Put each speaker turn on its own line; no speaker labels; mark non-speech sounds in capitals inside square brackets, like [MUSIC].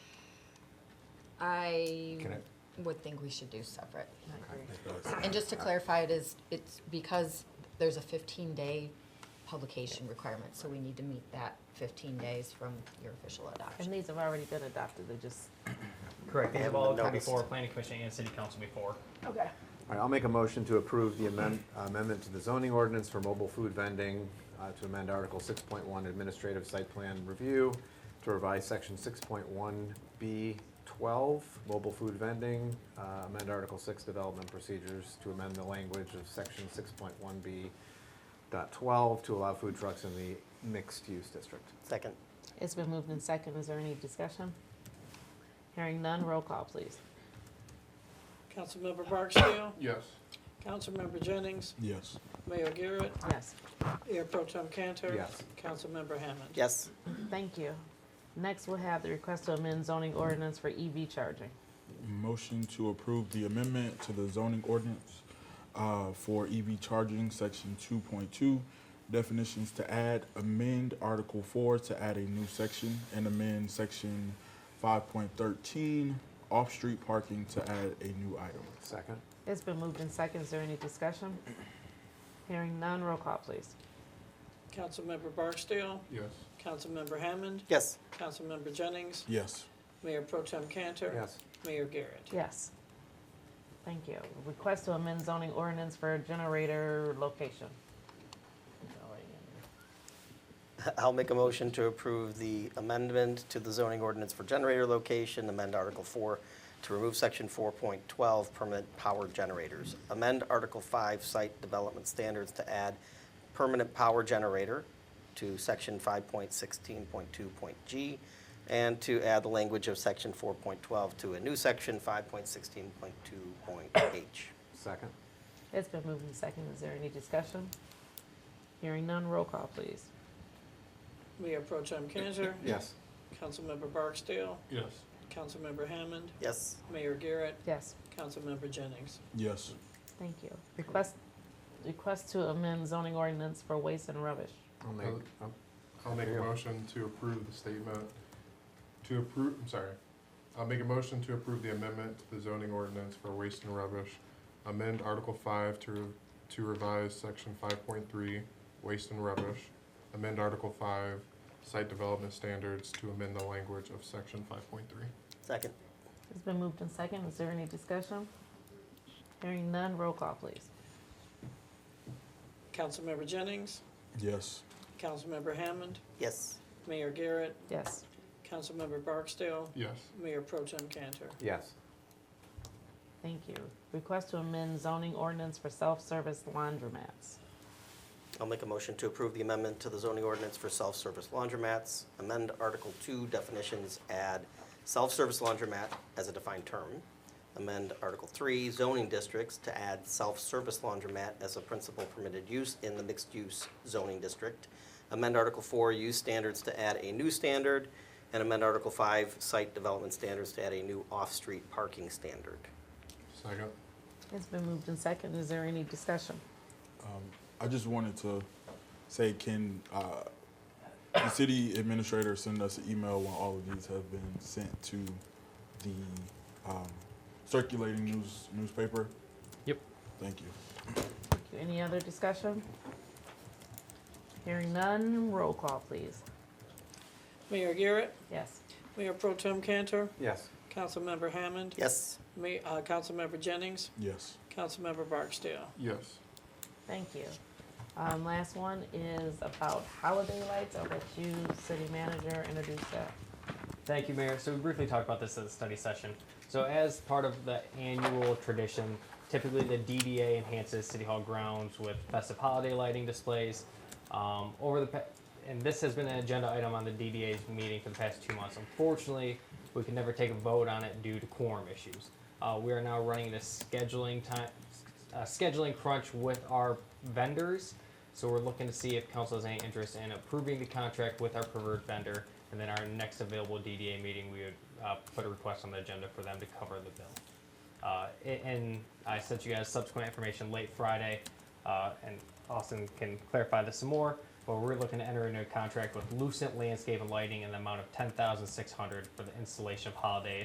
I
Can I,
would think we should do separate.
okay.
And just to clarify, it is, it's because there's a fifteen-day publication requirement, so we need to meet that fifteen days from your official
And
adoption.
these have already been adopted, they just.
Correct, they have
And
all
the
come
notice.
before planning commission and city council before.
Okay.
All right, I'll make a motion to approve the amend- amendment to the zoning ordinance for mobile food vending, uh, to amend Article 6.1 Administrative Site Plan Review, to revise Section 6.1B12, Mobile Food Vending, uh, amend Article 6 Development Procedures, to amend the language of Section 6.1B.12 to allow food trucks in the mixed-use district.
Second.
It's been moved in second, is there any discussion? Hearing none, roll call, please.
Councilmember Barksdale,
Yes.
Councilmember Jennings,
Yes.
Mayor Garrett,
Yes,
Mayor Pro Tem Cantor.
Yes.
Councilmember Hammond.
Yes.
thank you. Next, we'll have the request to amend zoning ordinance for EV charging.
Motion to approve the amendment to the zoning ordinance uh, for EV charging, section two point two, definitions to add, amend Article four to add a new section, and amend section five point thirteen, off-street parking to add a new item.
Second?
It's been moved in second, is there any discussion? Hearing none, roll call, please.
Councilmember Barksdale,
Yes.
Councilmember Hammond,
Yes.
Councilmember Jennings,
Yes.
Mayor Pro Tem Cantor.
Yes.
Mayor Garrett.
Yes. Thank you. Request to amend zoning ordinance for generator location.
[LAUGHS] I'll make a motion to approve the amendment to the zoning ordinance for generator location, amend Article 4 to remove Section 4.12 permanent power generators, amend Article 5 site development standards to add permanent power generator to Section 5.16.2.g, and to add the language of Section 4.12 to a new Section 5.16.2.h.
Second?
It's been moved in second, is there any discussion? Hearing none, roll call, please.
Mayor Pro Tem Cantor.
Yes.
Councilmember Barksdale,
Yes.
Councilmember Hammond,
Yes.
Mayor Garrett,
Yes,
Councilmember Jennings.
Yes.
thank you. Request, request to amend zoning ordinance for waste and rubbish.
I'll make, oh,
I'll make a
Yeah.
motion to approve the statement, to approve, I'm sorry. I'll make a motion to approve the amendment to the zoning ordinance for waste and rubbish. Amend Article five to, to revise section five point three, waste and rubbish. Amend Article five, site development standards to amend the language of section five point three.
Second.
It's been moved in second, is there any discussion? Hearing none, roll call, please.
Councilmember Jennings,
Yes.
Councilmember Hammond,
Yes.
Mayor Garrett,
Yes,
Councilmember Barksdale,
Yes.
Mayor Pro Tem Cantor.
yes.
thank you. Request to amend zoning ordinance for self-service laundromats.
I'll make a motion to approve the amendment to the zoning ordinance for self-service laundromats, amend Article 2 definitions, add self-service laundromat as a defined term, amend Article 3 zoning districts to add self-service laundromat as a principal permitted use in the mixed-use zoning district, amend Article 4 use standards to add a new standard, and amend Article 5 site development standards to add a new off-street parking standard.
Second.
It's been moved in second, is there any discussion?
I just wanted to say, can uh, the city administrator send us an email when all of these have been sent to the um, circulating news newspaper?
Yep.
Thank you.
Thank you. Any other discussion? Hearing none, roll call, please.
Mayor Garrett,
Yes,
Mayor Pro Tem Cantor,
Yes.
Councilmember Hammond.
Yes.
Ma- uh, Councilmember Jennings,
Yes.
Councilmember Barksdale.
Yes.
thank you. Um, last one is about holiday lights. I'll let you, city manager, introduce that.
Thank you, Mayor. So we briefly talked about this at the study session. So as part of the annual tradition, typically the DDA enhances City Hall grounds with festive holiday lighting displays. Um, over the, pa- and this has been an agenda item on the DDA's meeting for the past two months. Unfortunately, we could never take a vote on it due to quorum issues. Uh, we are now running this scheduling time, uh, scheduling crunch with our vendors. So we're looking to see if council has any interest in approving the contract with our preferred vendor. And then our next available DDA meeting, we would uh, put a request on the agenda for them to cover the bill. Uh, a- and I sent you guys subsequent information late Friday, uh, and Austin can clarify this some more. But we're looking to enter into a contract with Lucent Landscape and Lighting in the amount of ten thousand six hundred for the installation of holiday